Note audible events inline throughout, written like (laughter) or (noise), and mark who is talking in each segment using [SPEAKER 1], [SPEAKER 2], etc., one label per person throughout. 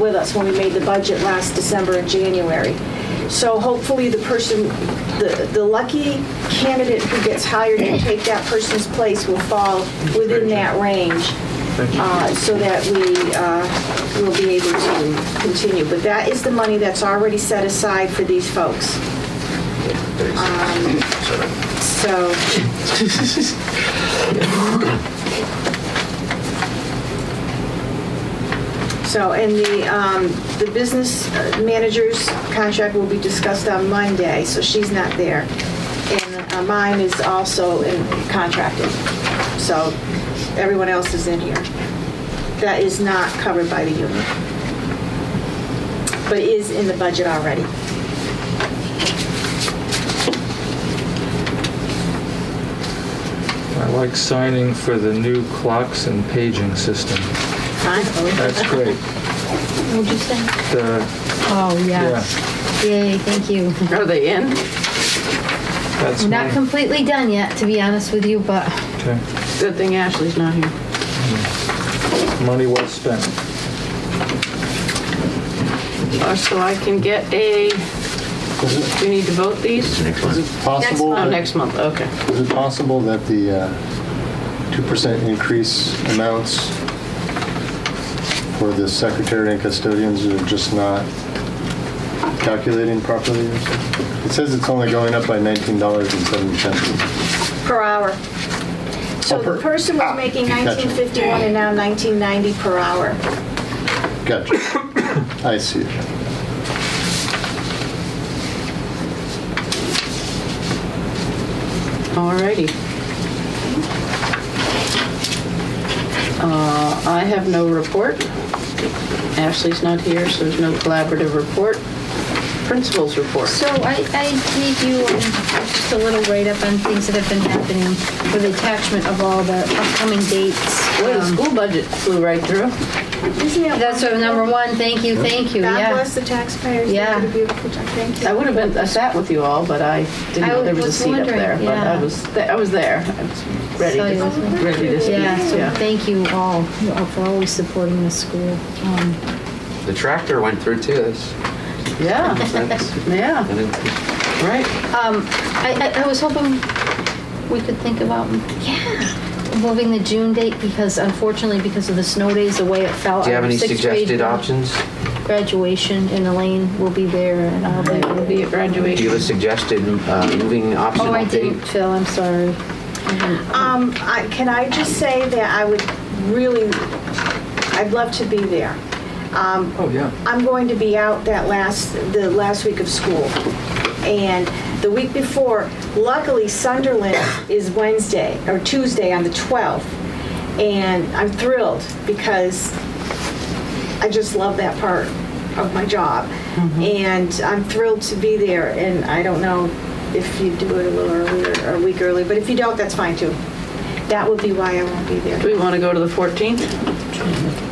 [SPEAKER 1] with us when we made the budget last December and January. So hopefully the person, the, the lucky candidate who gets hired to take that person's place will fall within that range uh, so that we uh, will be able to continue. But that is the money that's already set aside for these folks. Um, So, so, and the, um, the business manager's contract will be discussed on Monday, so she's not there. And uh, mine is also in- contracted, so everyone else is in here. That is not covered by the union, but is in the budget already.
[SPEAKER 2] I like signing for the new clocks and paging system.
[SPEAKER 1] Fine?
[SPEAKER 2] That's great.
[SPEAKER 3] What'd you say?
[SPEAKER 2] The,
[SPEAKER 3] Oh, yes. Yay, thank you.
[SPEAKER 4] Are they in?
[SPEAKER 2] that's
[SPEAKER 3] We're not
[SPEAKER 2] my,
[SPEAKER 3] completely done yet, to be honest with you, but
[SPEAKER 2] okay.
[SPEAKER 4] Good thing Ashley's not here.
[SPEAKER 2] money well spent.
[SPEAKER 4] Uh, So I can get a, do we need to vote these?
[SPEAKER 5] Next one.
[SPEAKER 6] Possible,
[SPEAKER 4] Oh,
[SPEAKER 6] that-
[SPEAKER 4] next month, okay.
[SPEAKER 6] is it possible that the uh, 2% increase amounts for the secretary and custodians are just not calculating properly? or something? It says it's only going up by $19.70.
[SPEAKER 1] Per hour. So
[SPEAKER 6] Oh,
[SPEAKER 1] the
[SPEAKER 6] per-
[SPEAKER 1] person was
[SPEAKER 6] ah,
[SPEAKER 1] making
[SPEAKER 6] gotcha.
[SPEAKER 1] 1951 and now 1990 per hour.
[SPEAKER 6] (coughs) Gotcha. I see it.
[SPEAKER 4] Alrighty. Uh, I have no report. Ashley's not here, so there's no collaborative report. Principals report.
[SPEAKER 3] So I, I gave you um, just a little write-up on things that have been happening with the attachment of all the upcoming dates.
[SPEAKER 4] Well, the
[SPEAKER 3] Um,
[SPEAKER 4] school budget flew right through.
[SPEAKER 1] Isn't that
[SPEAKER 3] That's sort of number one, thank you, thank you,
[SPEAKER 1] God
[SPEAKER 3] yeah.
[SPEAKER 1] bless the taxpayers. They
[SPEAKER 3] Yeah.
[SPEAKER 1] did a beautiful job. Thank
[SPEAKER 4] I
[SPEAKER 1] you.
[SPEAKER 4] would have been, I sat with you all, but I didn't know
[SPEAKER 3] I
[SPEAKER 4] there was a
[SPEAKER 3] was
[SPEAKER 4] seat up
[SPEAKER 3] wondering,
[SPEAKER 4] there. But I
[SPEAKER 3] yeah.
[SPEAKER 4] was, th- I was there. I was ready
[SPEAKER 3] So you
[SPEAKER 4] to,
[SPEAKER 3] was-
[SPEAKER 4] ready to speak,
[SPEAKER 3] Yeah, so
[SPEAKER 4] yeah.
[SPEAKER 3] thank you all you know, for always supporting the school. Um,
[SPEAKER 5] The tractor went through too. That's,
[SPEAKER 4] Yeah,
[SPEAKER 5] that's,
[SPEAKER 4] yeah,
[SPEAKER 5] and it-
[SPEAKER 4] right.
[SPEAKER 3] Um, I, I, I was hoping we could think about, yeah, moving the June date because unfortunately, because of the snow days, the way it fell.
[SPEAKER 5] do you have
[SPEAKER 3] our
[SPEAKER 5] any
[SPEAKER 3] sixth grade
[SPEAKER 5] suggested options?
[SPEAKER 3] Graduation in Elaine will be there and I'll be.
[SPEAKER 4] It will be at
[SPEAKER 5] Do you
[SPEAKER 4] graduation.
[SPEAKER 5] have a suggested uh, moving optional
[SPEAKER 3] Oh, I didn't,
[SPEAKER 5] date?
[SPEAKER 3] Phil, I'm sorry.
[SPEAKER 1] Um, I- Can I just say that I would really, I'd love to be there. Um,
[SPEAKER 2] Oh, yeah.
[SPEAKER 1] I'm going to be out that last, the last week of school. And the week before, luckily Sunderland is Wednesday, or Tuesday on the 12th. And I'm thrilled because I just love that part of my job.
[SPEAKER 2] Mm-hmm.
[SPEAKER 1] And I'm thrilled to be there. And I don't know if you do it a little earlier, or a week early, but if you don't, that's fine too. That would be why I won't be
[SPEAKER 4] Do
[SPEAKER 1] there.
[SPEAKER 4] we want to go to the 14th?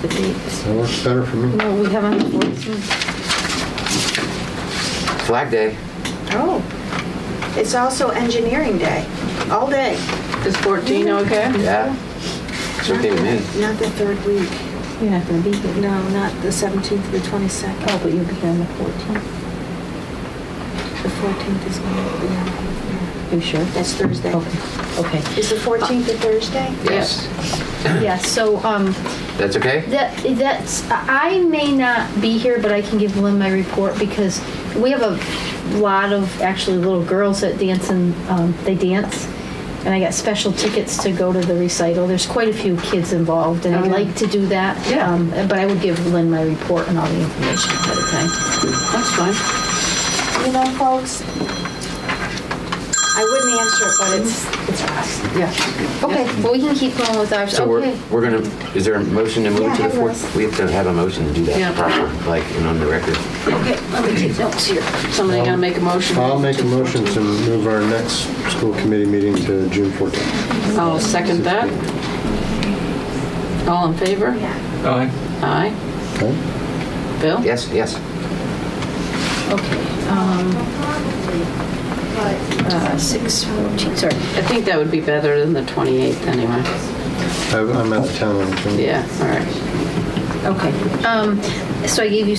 [SPEAKER 6] That works better for me.
[SPEAKER 3] No, we haven't. It's
[SPEAKER 5] Flag Day.
[SPEAKER 1] Oh. It's also engineering day, all day.
[SPEAKER 4] Is 14 okay?
[SPEAKER 5] Yeah. It's okay with me.
[SPEAKER 1] Not the third week.
[SPEAKER 3] You're not gonna be here.
[SPEAKER 1] No, not the 17th, the 22nd.
[SPEAKER 3] Oh, but you'll be here on the 14th.
[SPEAKER 1] The 14th is my,
[SPEAKER 3] You sure?
[SPEAKER 1] that's Thursday.
[SPEAKER 3] Okay, okay.
[SPEAKER 1] Is the 14th a Thursday?
[SPEAKER 5] Yes.
[SPEAKER 3] Yeah, so, um,
[SPEAKER 5] That's okay?
[SPEAKER 3] That that's I may not be here, but I can give Lynn my report because we have a lot of actually little girls that dance and um, they dance, and I got special tickets to go to the recital. There's quite a few kids involved, and I
[SPEAKER 4] Okay.
[SPEAKER 3] like to do that.
[SPEAKER 4] Yeah.
[SPEAKER 3] Um, but I would give Lynn my report and all the information ahead of time.
[SPEAKER 4] That's fine.
[SPEAKER 1] You know, folks, I wouldn't answer it, but it's, it's us.
[SPEAKER 4] Yeah.
[SPEAKER 3] Okay, well we can keep going with ours.
[SPEAKER 5] So we're,
[SPEAKER 3] okay.
[SPEAKER 5] we're gonna, is there a motion to
[SPEAKER 1] Yeah,
[SPEAKER 5] move to the
[SPEAKER 1] have
[SPEAKER 5] fourth? We have to have a motion to do
[SPEAKER 4] Yeah.
[SPEAKER 5] that proper, like, and on the record.
[SPEAKER 4] Okay, let me take notes here. Somebody gonna make a motion?
[SPEAKER 6] I'll make a motion to
[SPEAKER 4] 14th.
[SPEAKER 6] move our next school committee meeting to June 14th.
[SPEAKER 4] I'll second that. All in favor?
[SPEAKER 2] Aye.
[SPEAKER 4] Aye.
[SPEAKER 6] Okay?
[SPEAKER 4] Bill?
[SPEAKER 5] Yes, yes.
[SPEAKER 3] Okay. Um, uh, six fourteen. Sorry.
[SPEAKER 4] I think that would be better than the 28th anyway.
[SPEAKER 6] I- I'm out of town on the 20th.
[SPEAKER 4] Yeah, all right.
[SPEAKER 3] Okay. Um, So I gave you